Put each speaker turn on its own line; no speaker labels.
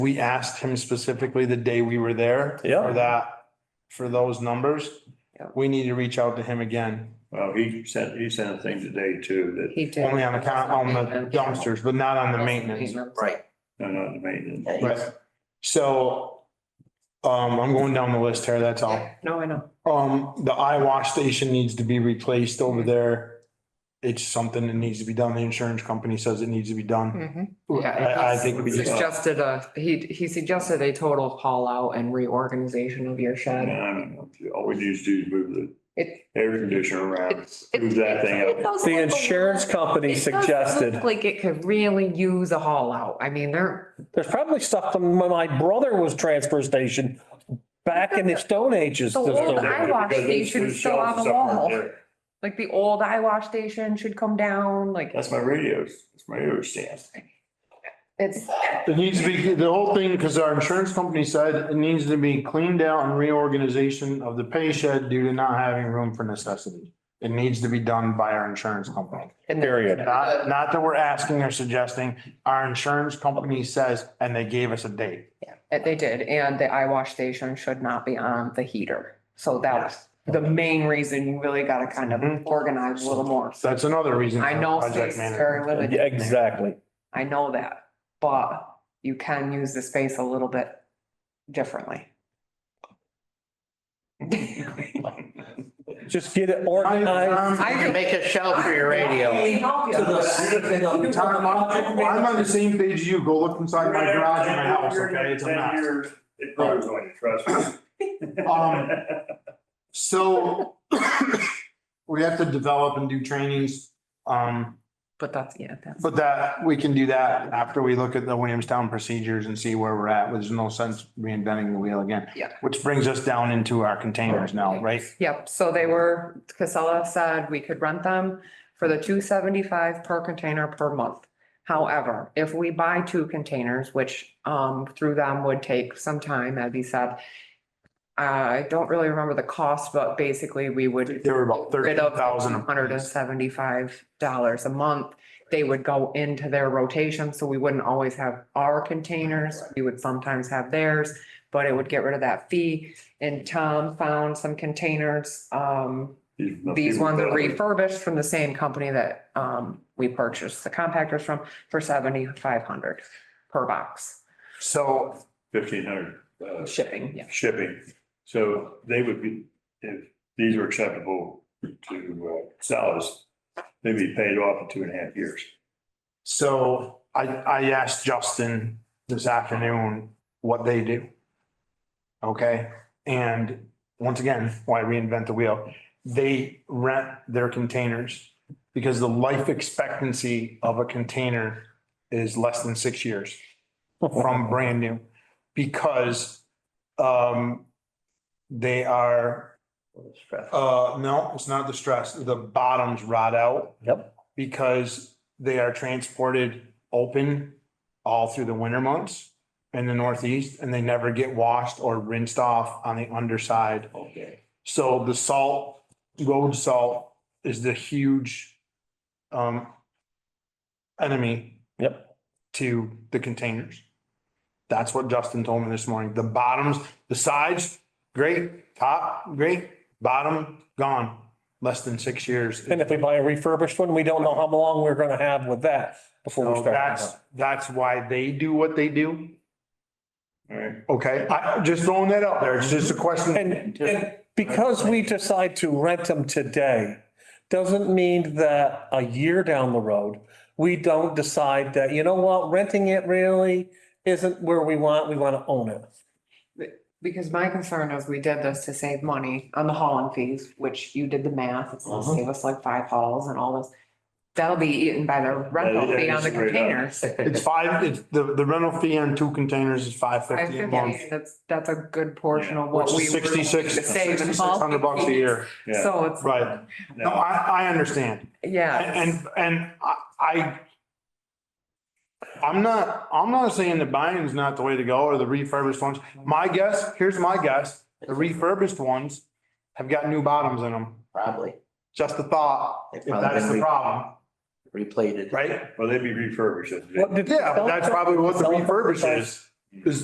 we asked him specifically the day we were there.
Yeah.
For that, for those numbers.
Yeah.
We need to reach out to him again,
Well, he sent, he sent a thing today too
He did.
only on the, con- on the dumpsters, but not on the maintenance.
Right.
that, no, not the maintenance.
Yeah, he's-
Right. So, um, I'm going down the list here, that's all.
Yeah, No, I know.
Um, the eye wash station needs to be replaced over there. It's something that needs to be done. The insurance company says it needs to be done.
Mhm.
I, I think we
He
just,
Suggested a, he, he suggested a total haul out and reorganization of your
I
shed.
don't know. All we need to do is move
It,
the air conditioner around,
it's.
move that thing
it
up.
does
The
look a
insurance
little-
company
it does look
suggested,
Like it could really use a haul out. I mean, they're,
there's probably stuff from when my brother was transfer station back in the Stone Ages.
The
there's
old
no-
I watched
Because
these
there's
should still
shelves
have a
up right
wall.
there.
like the old eye wash station should come down, like
That's my radios, that's my radio stand.
it's,
it needs to be, the whole thing, because our insurance company said it needs to be cleaned out and reorganization of the pay shed due to not having room for necessity. It needs to be done by our insurance company.
Period.
Not, not that we're asking or suggesting. Our insurance company says, and they gave us a date.
Uh, They did, and the eye wash station should not be on the heater. So that was the main reason you really gotta kind of
Mhm.
organize a little more.
So That's another reason.
I know
Project
space is
manager.
very limited.
Yeah, Exactly.
I know that, but you can use the space a little bit differently.
Just get it organized.
You can make a shelf for your radio.
Tom, I'm I'm on the same page as you. Go look inside my garage and my house, okay? It's a mess.
It grows on you, trust me.
Um, So we have to develop and do trainings. Um,
But that's, yeah, that's,
but that, we can do that after we look at the Williamstown procedures and see where we're at. There's no sense reinventing the wheel again.
Yeah.
Which brings us down into our containers now, right?
yep, so they were, Casella said we could rent them for the two seventy-five per container per month. However, if we buy two containers, which um through them would take some time, as he said. I don't really remember the cost, but basically we would.
They were about
rid
thirty
of
thousand.
Hundred and seventy-five dollars a month. They would go into their rotation, so we wouldn't always have our containers. We would sometimes have theirs, but it would get rid of that fee. And Tom found some containers, um, these ones are refurbished from the same company that, um, we purchased the compactors from for seventy-five hundred per box.
So
Fifteen hundred, uh,
Shipping, yeah.
shipping. So they would be, if these are acceptable to uh, sellers, they'd be paid off in two and a half years.
So I, I asked Justin this afternoon what they do. Okay, and once again, why reinvent the wheel? They rent their containers because the life expectancy of a container is less than six years from brand new. Because, um, they are, uh, no, it's not the stress, the bottoms rot out.
Yep.
Because they are transported open all through the winter months in the northeast and they never get washed or rinsed off on the underside.
Okay.
So the salt, road salt is the huge um enemy.
Yep.
To the containers. That's what Justin told me this morning. The bottoms, the sides, great, top, great, bottom, gone. Less than six years.
And if we buy a refurbished one, we don't know how long we're gonna have with that before we
So
start.
that's, that's why they do what they do.
All right.
Okay, I, I'm just throwing that out there. It's just a question.
And, and because we decide to rent them today, doesn't mean that a year down the road, we don't decide that, you know what, renting it really isn't where we want, we want to own it.
Because my concern is we did this to save money on the hauling fees, which you did the math, it's gonna
Uh-huh.
Mhm.
save us like five hauls and all this. That'll be eaten by the rental
Yeah,
fee
yeah,
on the
uh,
just straight up.
containers.
It's five, it's, the, the rental fee on two containers is five
I
fifty a
think
month.
That's, that's a good portion of what
Which
we.
is
were going to
sixty-six,
save in
sixty-six
hauling
hundred bucks a
fees.
year.
Yeah.
So it's,
Right. No,
Now,
I, I understand.
yeah.
And, and- and I, I, I'm not, I'm not saying that buying's not the way to go or the refurbished ones. My guess, here's my guess, the refurbished ones have got new bottoms in them.
Probably
Just a thought, if that's the problem,
replated.
right?
Well, they'd be refurbished.
What did-
Yeah, but that's probably what the refurbish is.